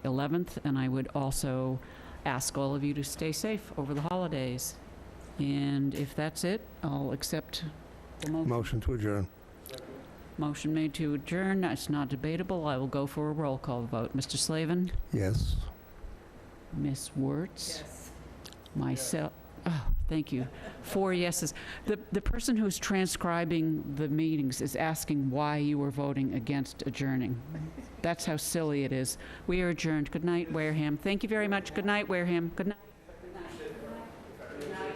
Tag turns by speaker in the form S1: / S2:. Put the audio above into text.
S1: 11th, and I would also ask all of you to stay safe over the holidays. And if that's it, I'll accept the motion.
S2: Motion to adjourn.
S1: Motion made to adjourn, it's not debatable, I will go for a roll call vote. Mr. Slavin?
S2: Yes.
S1: Ms. Wertz?
S3: Yes.
S1: Myself, oh, thank you. Four yeses. The, the person who's transcribing the meetings is asking why you were voting against adjourning. That's how silly it is. We are adjourned. Good night, Wareham. Thank you very much. Good night, Wareham. Good night.